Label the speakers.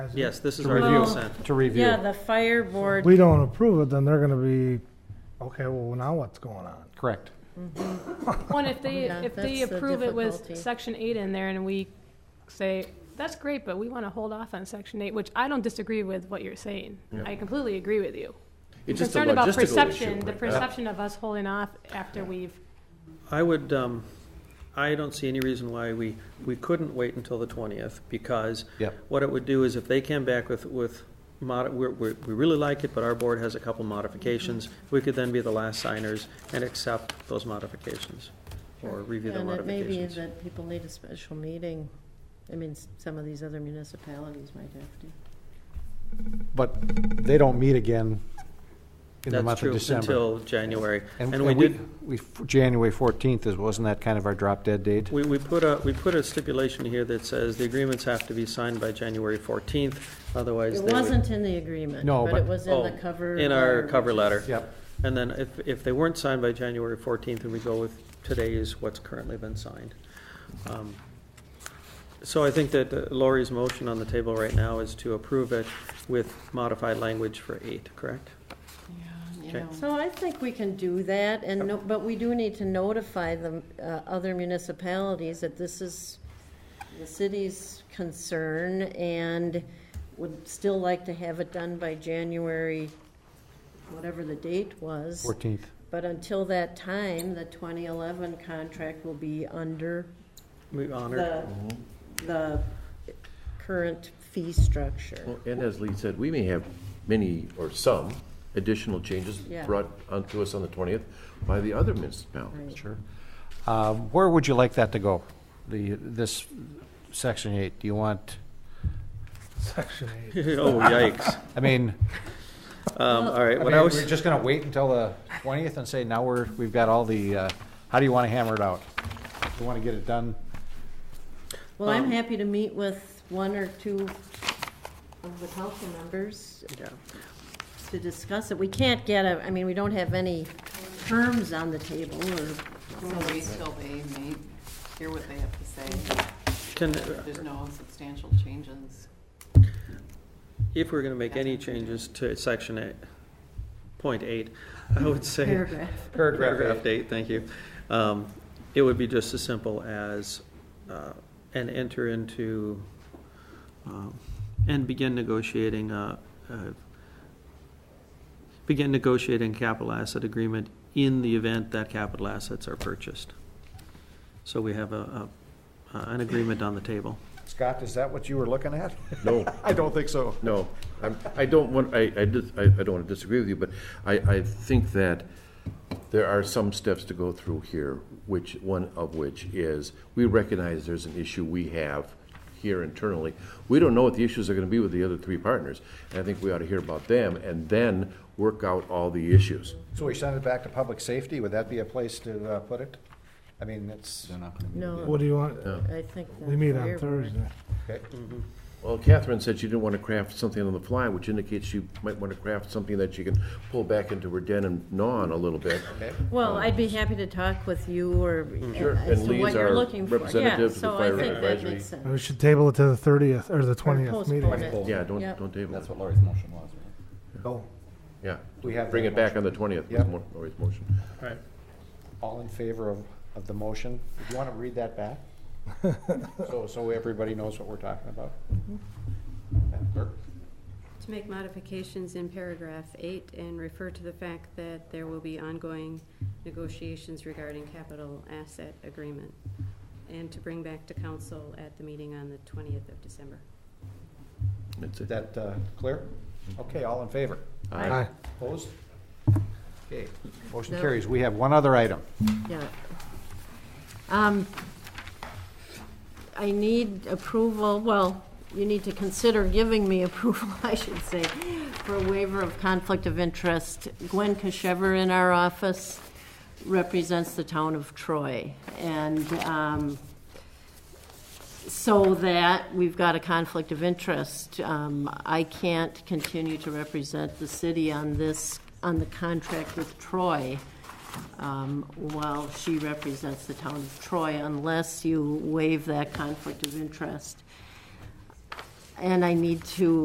Speaker 1: Yes, this is
Speaker 2: To
Speaker 1: our
Speaker 2: review.
Speaker 1: consent.
Speaker 2: to review.
Speaker 3: Yeah, the fire board,
Speaker 4: we don't approve it, then they're gonna be, okay, well, now what's going on?
Speaker 2: Correct.
Speaker 5: One, if they,
Speaker 3: Yeah,
Speaker 5: if they
Speaker 3: that's the
Speaker 5: approve it with
Speaker 3: difficulty.
Speaker 5: section eight in there and we say, that's great, but we want to hold off on section eight, which I don't disagree with what you're saying. I completely agree with you.
Speaker 6: It's just a
Speaker 5: Concerned about
Speaker 6: logistical issue,
Speaker 5: perception, the
Speaker 6: right?
Speaker 5: perception of us holding off after we've,
Speaker 1: I would, um, I don't see any reason why we, we couldn't wait until the twentieth, because
Speaker 2: Yep.
Speaker 1: what it would do is if they came back with, with mod, we're, we're, we really like it, but our board has a couple modifications, we could then be the last signers and accept those modifications, or review the
Speaker 3: and it may be
Speaker 1: modifications.
Speaker 3: that people need a special meeting. I mean, s- some of these other municipalities might have to.
Speaker 2: But they don't meet again in the
Speaker 1: That's
Speaker 2: month of
Speaker 1: true,
Speaker 2: December.
Speaker 1: until January.
Speaker 2: And
Speaker 1: And we
Speaker 2: and we,
Speaker 1: did,
Speaker 2: we, January 14th is, wasn't that kind of our drop dead date?
Speaker 1: we, we put a, we put a stipulation here that says the agreements have to be signed by January fourteenth, otherwise
Speaker 3: It
Speaker 1: they would.
Speaker 3: wasn't in the agreement,
Speaker 2: No,
Speaker 3: but
Speaker 2: but-
Speaker 3: it was in the
Speaker 1: Oh,
Speaker 3: cover.
Speaker 1: In our
Speaker 3: letter,
Speaker 1: cover
Speaker 3: which is-
Speaker 1: letter.
Speaker 2: Yep.
Speaker 1: And then if, if they weren't signed by January 14th, and we go with today is what's currently been signed. Um, So I think that uh, Lori's motion on the table right now is to approve it with modified language for eight, correct? Okay.
Speaker 3: So I think we can do that, and, no- but we do need to notify the uh, other municipalities that this is the city's concern and would still like to have it done by January, whatever the date was.
Speaker 2: 14th.
Speaker 3: But until that time, the 2011 contract will be under
Speaker 1: We honor,
Speaker 3: the,
Speaker 6: Mm-hmm.
Speaker 3: the current fee structure.
Speaker 6: Well, And as Lee said, we may have many or some additional changes
Speaker 3: Yeah.
Speaker 6: brought onto us on the 20th by the other municipalities.
Speaker 2: Sure. Uh, Where would you like that to go? The, this section eight, do you want,
Speaker 4: Section eight.
Speaker 1: oh yikes.
Speaker 2: I mean,
Speaker 1: Um, All right,
Speaker 2: I
Speaker 1: what
Speaker 2: mean,
Speaker 1: I
Speaker 2: we're
Speaker 1: was,
Speaker 2: just gonna wait until the twentieth and say, now we're, we've got all the, uh, how do you wanna hammer it out? Do you wanna get it done?
Speaker 3: Well, I'm
Speaker 6: Um,
Speaker 3: happy to meet with one or two of the council members
Speaker 1: yeah.
Speaker 3: to discuss it. We can't get a, I mean, we don't have any terms on the table or,
Speaker 7: So we still may, may hear what they have to say.
Speaker 1: Can,
Speaker 7: There's no substantial changes.
Speaker 1: if we're going to make any changes to section eight, point eight, I would say.
Speaker 3: Paragraph.
Speaker 1: Paragraph eight, thank you. Um, It would be just as simple as, uh, and enter into, um, and begin negotiating, uh, uh, begin negotiating capital asset agreement in the event that capital assets are purchased. So we have a, a- uh, an agreement on the table.
Speaker 2: Scott, is that what you were looking at?
Speaker 6: No,
Speaker 2: I don't think so.
Speaker 6: no, I'm, I don't want, I, I dis- I, I don't want to disagree with you, but I, I think that there are some steps to go through here, which, one of which is, we recognize there's an issue we have here internally. We don't know what the issues are going to be with the other three partners, and I think we ought to hear about them and then work out all the issues.
Speaker 2: So we send it back to public safety, would that be a place to, uh, put it? I mean, it's,
Speaker 3: No,
Speaker 4: What do you want,
Speaker 3: I think. the
Speaker 4: we meet
Speaker 3: fire
Speaker 4: on
Speaker 3: board-
Speaker 4: Thursday.
Speaker 2: okay,
Speaker 6: Well, Catherine said she didn't want to craft something on the fly, which indicates she might want to craft something that she can pull back into her den and gnaw on a little bit.
Speaker 3: Well, I'd be happy to talk with you or uh,
Speaker 6: Sure.
Speaker 3: as
Speaker 6: And
Speaker 3: to
Speaker 6: Lee's
Speaker 3: what
Speaker 6: our
Speaker 3: you're looking for. Yeah,
Speaker 6: representative to the
Speaker 3: so I
Speaker 6: Fire
Speaker 3: think that
Speaker 6: Advisory.
Speaker 3: makes sense.
Speaker 4: We should table it to the thirtieth, or the twentieth
Speaker 3: postpone
Speaker 4: meeting.
Speaker 3: it.
Speaker 6: Yeah, don't,
Speaker 3: Yep.
Speaker 6: don't table it.
Speaker 8: what Lori's motion was, right?
Speaker 2: go,
Speaker 6: Yeah.
Speaker 2: Oh, We have
Speaker 6: Bring
Speaker 2: that
Speaker 6: it back on the twentieth,
Speaker 2: Yeah.
Speaker 6: was Mo- Lori's motion.
Speaker 2: all in favor of, of the motion, do you wanna read that back? So, so everybody knows what we're talking about? Madam Clerk?
Speaker 9: To make modifications in paragraph eight and refer to the fact that there will be ongoing negotiations regarding capital asset agreement, and to bring back to council at the meeting on the twentieth of December.
Speaker 6: That's
Speaker 2: Is
Speaker 6: it.
Speaker 2: that uh, clear? Okay, all in favor?
Speaker 4: Aye.
Speaker 2: Opposed? Okay, motion
Speaker 3: No.
Speaker 2: carries. We have one other item.
Speaker 3: Yeah. Um, I need approval, well, you need to consider giving me approval, I should say, for a waiver of conflict of interest. Gwen Kashever in our office represents the town of Troy. And um, so that we've got a conflict of interest. Um, I can't continue to represent the city on this, on the contract with Troy um, while she represents the town of Troy, unless you waive that conflict of interest. and I need to